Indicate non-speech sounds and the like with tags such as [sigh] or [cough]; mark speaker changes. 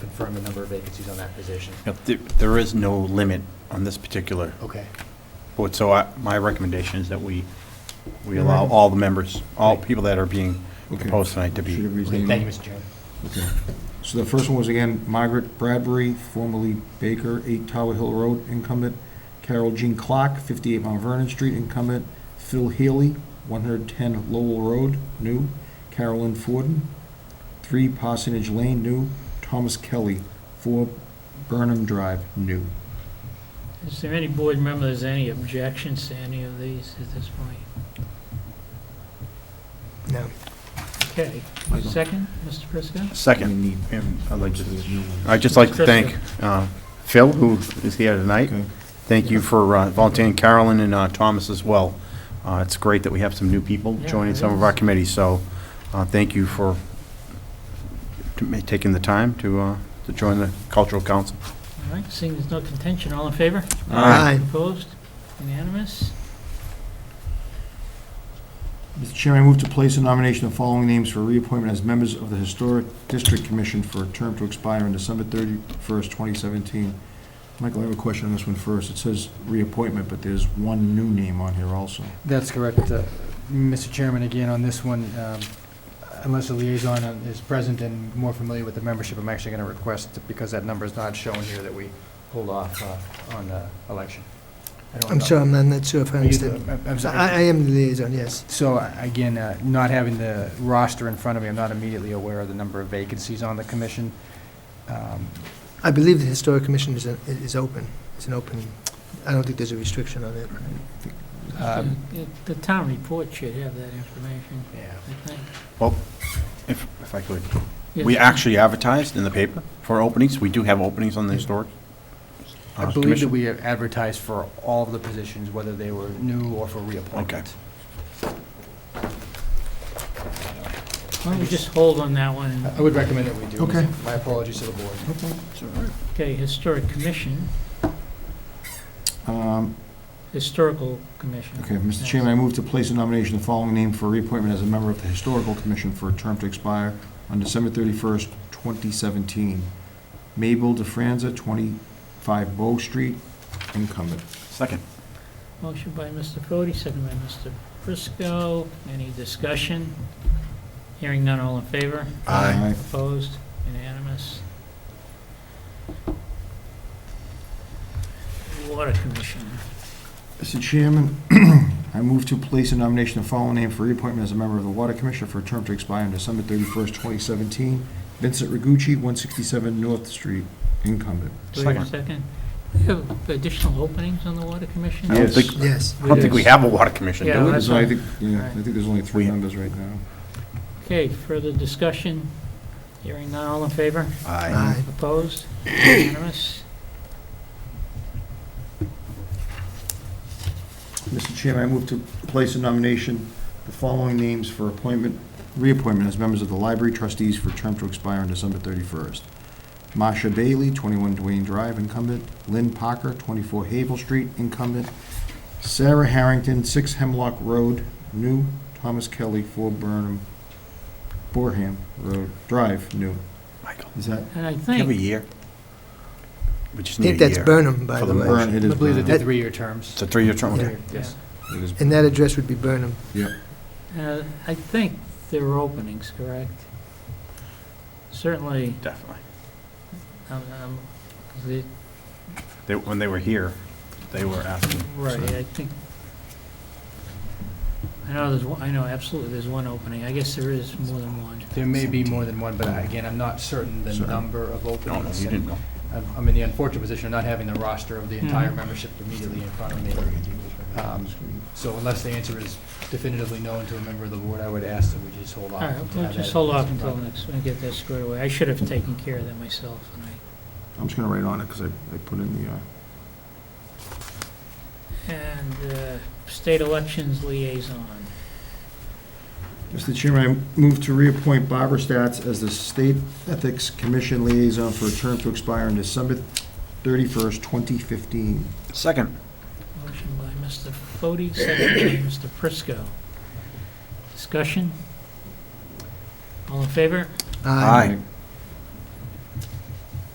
Speaker 1: confirm the number of vacancies on that position.
Speaker 2: Yep, there- There is no limit on this particular
Speaker 1: Okay.
Speaker 2: board, so I- my recommendation is that we, we allow all the members, all people that are being
Speaker 3: Okay.
Speaker 2: proposed tonight to
Speaker 3: Should
Speaker 2: be,
Speaker 3: have his
Speaker 1: Okay,
Speaker 3: name.
Speaker 1: Thank you, Mr. Chairman.
Speaker 3: Okay. So the first one was again Margaret Bradbury, formerly Baker, 8 Tower Hill Road incumbent, Carol Jean Clark, 58 Mount Vernon Street incumbent, Phil Healy, 110 Lowell Road, new, Carolyn Forden, 3 Parsonage Lane, new, Thomas Kelly, 4 Burnham Drive, new.
Speaker 4: Is there any board member, there's any objections to any of these at this point?
Speaker 1: No.
Speaker 4: Okay, second, Mr. Prisco?
Speaker 2: second.
Speaker 3: We need-
Speaker 2: And I'd like to-
Speaker 3: There's new ones.
Speaker 2: I'd just like to thank uh, Phil, who is here tonight.
Speaker 3: Okay.
Speaker 2: Thank you for uh, volunteering, Carolyn and uh, Thomas as well. Uh, It's great that we have some new people
Speaker 4: Yeah,
Speaker 2: joining
Speaker 4: it
Speaker 2: some of
Speaker 4: is.
Speaker 2: our committees, so uh, thank you for to ma- taking the time to, uh, to join the cultural council.
Speaker 4: All right, seeing there's no contention, all in favor?
Speaker 2: Aye.
Speaker 4: Opposed? Unanimous?
Speaker 3: Mr. Chairman, I move to place a nomination of the following names for reappointment as members of the Historic District Commission for a term to expire on December 31st, 2017. Michael, I have a question on this one first. It says reappointment, but there's one new name on here also.
Speaker 5: That's correct. Uh, Mr. Chairman, again, on this one, um, unless the liaison is present and more familiar with the membership, I'm actually going to request, because that number is not shown here, that we hold off uh, on uh, election. I don't
Speaker 6: I'm
Speaker 5: know.
Speaker 6: sorry, I'm not- not sure if I
Speaker 5: Are you the-
Speaker 6: understand.
Speaker 5: I'm- I'm sorry.
Speaker 6: I I am the liaison, yes.
Speaker 5: So uh, again, uh, not having the roster in front of me, I'm not immediately aware of the number of vacancies on the commission. Um,
Speaker 6: I believe the Historic Commission is, a- is open, it's an open, I don't think there's a restriction on it.
Speaker 5: um,
Speaker 4: Uh, The town report should have that information,
Speaker 5: Yeah.
Speaker 4: I think.
Speaker 2: Well, if, if I could,
Speaker 4: Yeah.
Speaker 2: we actually advertised in the paper for openings. We do have openings on the historic. uh,
Speaker 5: I believe that
Speaker 2: commission.
Speaker 5: we have advertised for all of the positions, whether they were new or for reappointment.
Speaker 4: Why don't we just hold on that one?
Speaker 5: I would recommend that we do.
Speaker 3: Okay.
Speaker 5: My apologies to the board.
Speaker 4: Okay, Historic Commission,
Speaker 3: Um,
Speaker 4: Historical Commission.
Speaker 3: Okay, Mr. Chairman, I move to place a nomination of the following name for reappointment as a member of the Historical Commission for a term to expire on December 31st, 2017. Mabel DeFranza, 25 Bow Street, incumbent.
Speaker 2: Second.
Speaker 4: Motion by Mr. Fode, second by Mr. Prisco. Any discussion? Hearing none, all in favor?
Speaker 3: Aye.
Speaker 4: Opposed? Unanimous? Water Commission.
Speaker 3: Mr. Chairman, [clears throat] I move to place a nomination of following name for reappointment as a member of the Water Commission for a term to expire on December 31st, 2017. Vincent Rigucci, 167 North Street, incumbment.
Speaker 4: Do we have a second? Do we have additional openings on the Water Commission?
Speaker 2: I don't think,
Speaker 6: Yes.
Speaker 2: I don't think we have a water commission, do
Speaker 4: Yeah,
Speaker 2: we?
Speaker 4: that's
Speaker 3: So I
Speaker 4: fine.
Speaker 3: think, yeah, I think there's only three members right now.
Speaker 4: Okay, further discussion? Hearing none, all in favor?
Speaker 2: Aye.
Speaker 6: Aye.
Speaker 4: Opposed? Unanimous?
Speaker 3: Mr. Chairman, I move to place a nomination, the following names for appointment, reappointment as members of the Library Trustees for a term to expire on December 31st. Masha Bailey, 21 Duane Drive, incumbent. Lynn Parker, 24 Havel Street, incumbent. Sarah Harrington, 6 Hemlock Road, new. Thomas Kelly, 4 Burnham, Borham Road, Drive, new.
Speaker 2: Michael,
Speaker 3: Is that?
Speaker 4: And I
Speaker 2: do you have a
Speaker 4: think,
Speaker 2: year? We just
Speaker 6: I
Speaker 2: need a year.
Speaker 6: think that's Burnham, by
Speaker 2: For
Speaker 6: the
Speaker 2: the
Speaker 6: way.
Speaker 3: Burn, it
Speaker 5: I
Speaker 3: is
Speaker 5: believe that they're
Speaker 3: Burnham.
Speaker 5: three-year terms.
Speaker 2: It's a three-year term, okay.
Speaker 6: Yeah.
Speaker 5: Yes.
Speaker 3: It is
Speaker 6: And that address would be Burnham.
Speaker 4: uh, I think there were openings, correct? Certainly,
Speaker 2: Definitely.
Speaker 4: um, um, the-
Speaker 2: They, when they were here, they were asking.
Speaker 4: right,
Speaker 2: so-
Speaker 4: I think, I know there's, one. I know absolutely there's one opening. I guess there is more than one.
Speaker 5: There may be more than one, but again, I'm not certain the
Speaker 3: Sorry.
Speaker 5: number of
Speaker 2: No, no,
Speaker 5: openings.
Speaker 2: you didn't know.
Speaker 5: I'm I'm in the unfortunate position of not having the roster of the entire
Speaker 4: Mhm.
Speaker 5: membership immediately in front of me. Um, So unless the answer is definitively known to a member of the board, I would ask that we just hold
Speaker 4: All
Speaker 5: off.
Speaker 4: right,
Speaker 5: until
Speaker 4: we'll
Speaker 5: that
Speaker 4: just
Speaker 5: is-
Speaker 4: hold off until next, we get that squared away. I should have taken care of that myself, and I
Speaker 3: I'm just going to write on it because I I put in the, uh,
Speaker 4: And uh, State Elections Liaison.
Speaker 3: Mr. Chairman, I move to reappoint Barbara Stats as the State Ethics Commission Liaison for a term to expire on December 31st, 2015.
Speaker 2: Second.
Speaker 4: Motion by Mr. Fode, second by Mr. Prisco. Discussion? All in favor?
Speaker 2: Aye.